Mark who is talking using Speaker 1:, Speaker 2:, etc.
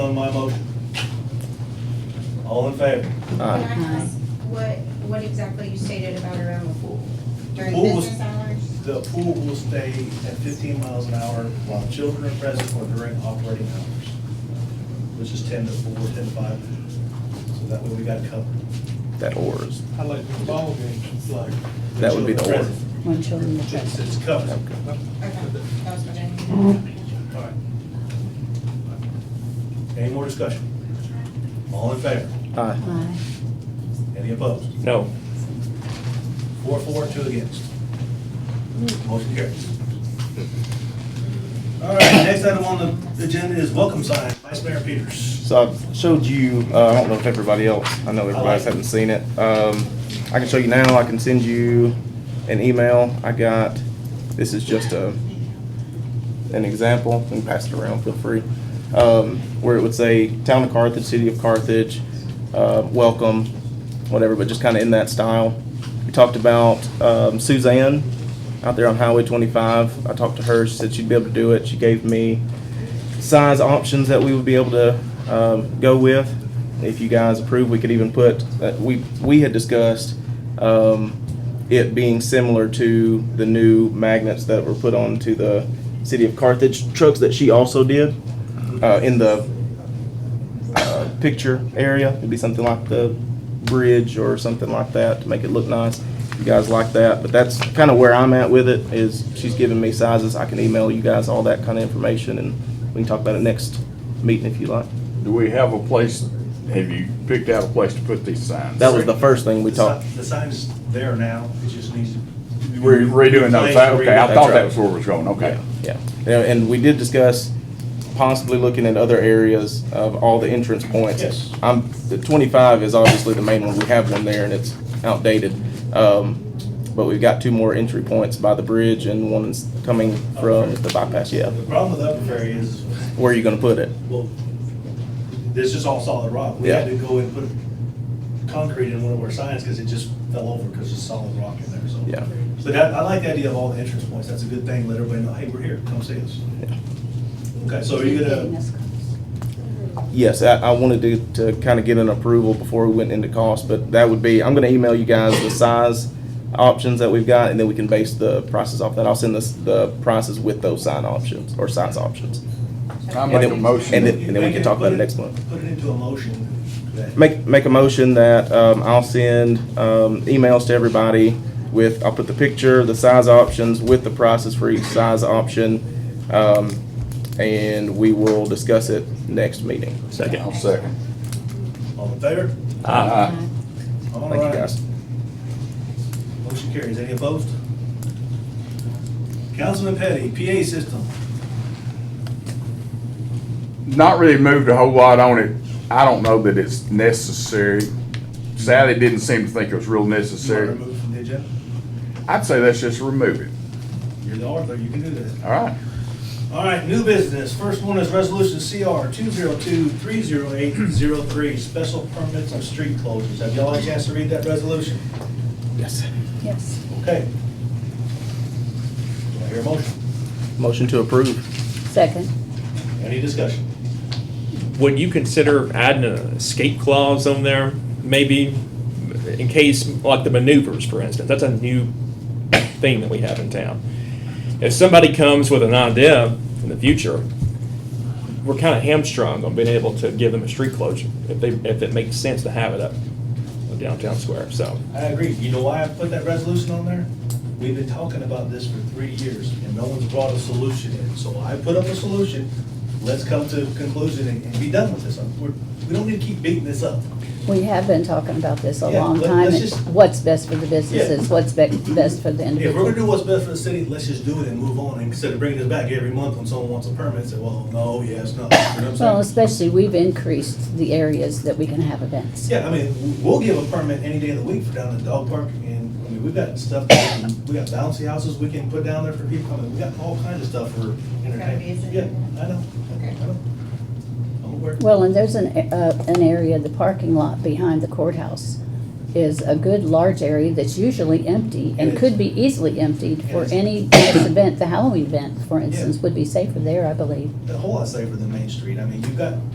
Speaker 1: my motion. All in favor?
Speaker 2: Can
Speaker 3: Aye.
Speaker 2: I ask what, what exactly you stated about around the pool? During
Speaker 1: Pool was-
Speaker 2: business hours?
Speaker 1: The pool will stay at fifteen miles an hour while children are present or during operating hours, which is ten to four, ten to five. So that way we got covered.
Speaker 3: That or is,
Speaker 4: I like the ball games, like,
Speaker 3: that would be the or.
Speaker 1: Children
Speaker 5: When children are
Speaker 1: present. It's,
Speaker 5: present.
Speaker 1: it's covered.
Speaker 2: Okay, that was my
Speaker 1: All right. Any more discussion? All in favor?
Speaker 3: Aye.
Speaker 5: Aye.
Speaker 1: Any opposed?
Speaker 3: No.
Speaker 1: Four, four, two against. Motion carries. All right, next item on the agenda is welcome sign. Vice Mayor Peters.
Speaker 3: So I've showed you, uh, I don't know if everybody else, I know everybody else hasn't seen it. Um, I can show you now, I can send you an email I got. This is just a, an example, and pass it around, feel free. Um, where it would say, Town of Carthage, City of Carthage, uh, welcome, whatever, but just kind of in that style. We talked about, um, Suzanne out there on Highway twenty-five. I talked to her, she said she'd be able to do it. She gave me size options that we would be able to um, go with. If you guys approve, we could even put, uh, we, we had discussed um, it being similar to the new magnets that were put onto the city of Carthage trucks that she also did uh, in the uh, picture area. It'd be something like the bridge or something like that to make it look nice. You guys like that, but that's kind of where I'm at with it. Is she's giving me sizes. I can email you guys all that kind of information, and we can talk about it next meeting if you like.
Speaker 6: Do we have a place, have you picked out a place to put these signs?
Speaker 3: That was the first thing we
Speaker 1: The
Speaker 3: talked.
Speaker 1: si- The sign's there now, it just needs to.
Speaker 6: We're redoing those, signs? okay, I thought that was where we was going, okay.
Speaker 3: Yeah, Yeah, and we did discuss possibly looking at other areas of all the entrance points.
Speaker 1: Yes.
Speaker 3: I'm, the twenty-five is obviously the main one, we have one there and it's outdated. Um, but we've got two more entry points by the bridge and one's coming from the bypass, yeah.
Speaker 1: The problem with Upper Ferry is,
Speaker 3: Where are you gonna put it?
Speaker 1: well, this is all solid rock. We had to go and put concrete in one of our signs because it just fell over because it's solid rock in there, so.
Speaker 3: Yeah.
Speaker 1: But I, I like the idea of all the entrance points. That's a good thing. Let everybody know, hey, we're here, come see us.
Speaker 3: Yeah.
Speaker 1: Okay, so are you
Speaker 5: Getting
Speaker 1: gonna,
Speaker 5: us close.
Speaker 3: Yes, I, I wanted to, to kind of get an approval before we went into cost, but that would be, I'm gonna email you guys the size options that we've got, and then we can base the prices off that. I'll send this, the prices with those sign options, or size options.
Speaker 6: I
Speaker 3: And
Speaker 6: make
Speaker 3: then-
Speaker 6: a motion.
Speaker 3: And then, and then we can talk about it
Speaker 1: Put
Speaker 3: next month.
Speaker 1: Put it into a motion that.
Speaker 3: Make, make a motion that, um, I'll send, um, emails to everybody with, I'll put the picture, the size options, with the prices for each size option. Um, and we will discuss it next meeting.
Speaker 6: I'll second. Uh,
Speaker 1: All in favor?
Speaker 6: Aye.
Speaker 1: All
Speaker 3: Thank you,
Speaker 1: right.
Speaker 3: guys.
Speaker 1: Motion carries. Any opposed? Councilman Petty, PA system.
Speaker 6: Not really moved a whole lot on it. I don't know that it's necessary. Sally didn't seem to think it was real
Speaker 1: You want to
Speaker 6: necessary.
Speaker 1: remove from the agenda?
Speaker 6: I'd say let's just remove it,
Speaker 1: You're the author, you can do that.
Speaker 6: all right?
Speaker 1: All right, new business. First one is resolution CR two zero two three zero eight zero three, special permits on street closures. Have y'all had a chance to read that resolution?
Speaker 3: Yes.
Speaker 5: Yes.
Speaker 1: Okay. Do I hear a motion?
Speaker 3: Motion to approve.
Speaker 5: Second.
Speaker 1: Any discussion?
Speaker 7: Would you consider adding an escape clause on there, maybe, in case, like the maneuvers, for instance? That's a new thing that we have in town. If somebody comes with an idea in the future, we're kind of hamstrung on being able to give them a street closure, if they, if it makes sense to have it up downtown square, so.
Speaker 1: I agree. You know why I put that resolution on there? We've been talking about this for three years, and no one's brought a solution in. So I put up a solution, let's come to a conclusion and and be done with this. We're- We don't need to keep beating this up.
Speaker 5: We have been talking about this a
Speaker 1: Yeah,
Speaker 5: long
Speaker 1: let-
Speaker 5: time,
Speaker 1: let's
Speaker 5: and
Speaker 1: just-
Speaker 5: what's best for the businesses, what's be- best for the
Speaker 1: If we're
Speaker 5: individual.
Speaker 1: gonna do what's best for the city, let's just do it and move on, instead of bringing this back every month when someone wants a permit, say, well, no, yes, no, you know what
Speaker 5: Well,
Speaker 1: I'm saying?
Speaker 5: especially, we've increased the areas that we can have events.
Speaker 1: Yeah, I mean, w- we'll give a permit any day of the week for down the dog park, and, I mean, we've got stuff, that we can- we got bouncy houses we can put down there for people coming, we got all kinds of stuff for entertainment.
Speaker 2: busy.
Speaker 1: Yeah, I know,
Speaker 2: Okay.
Speaker 1: I know. I'm aware.
Speaker 5: Well, and there's an, a- uh, an area, the parking lot behind the courthouse is a good large area that's usually empty
Speaker 1: It
Speaker 5: and
Speaker 1: is.
Speaker 5: could be easily emptied for
Speaker 1: It is.
Speaker 5: any next event, the Halloween event, for instance, would be safer there, I believe.
Speaker 1: A whole lot safer than Main Street, I mean, you've got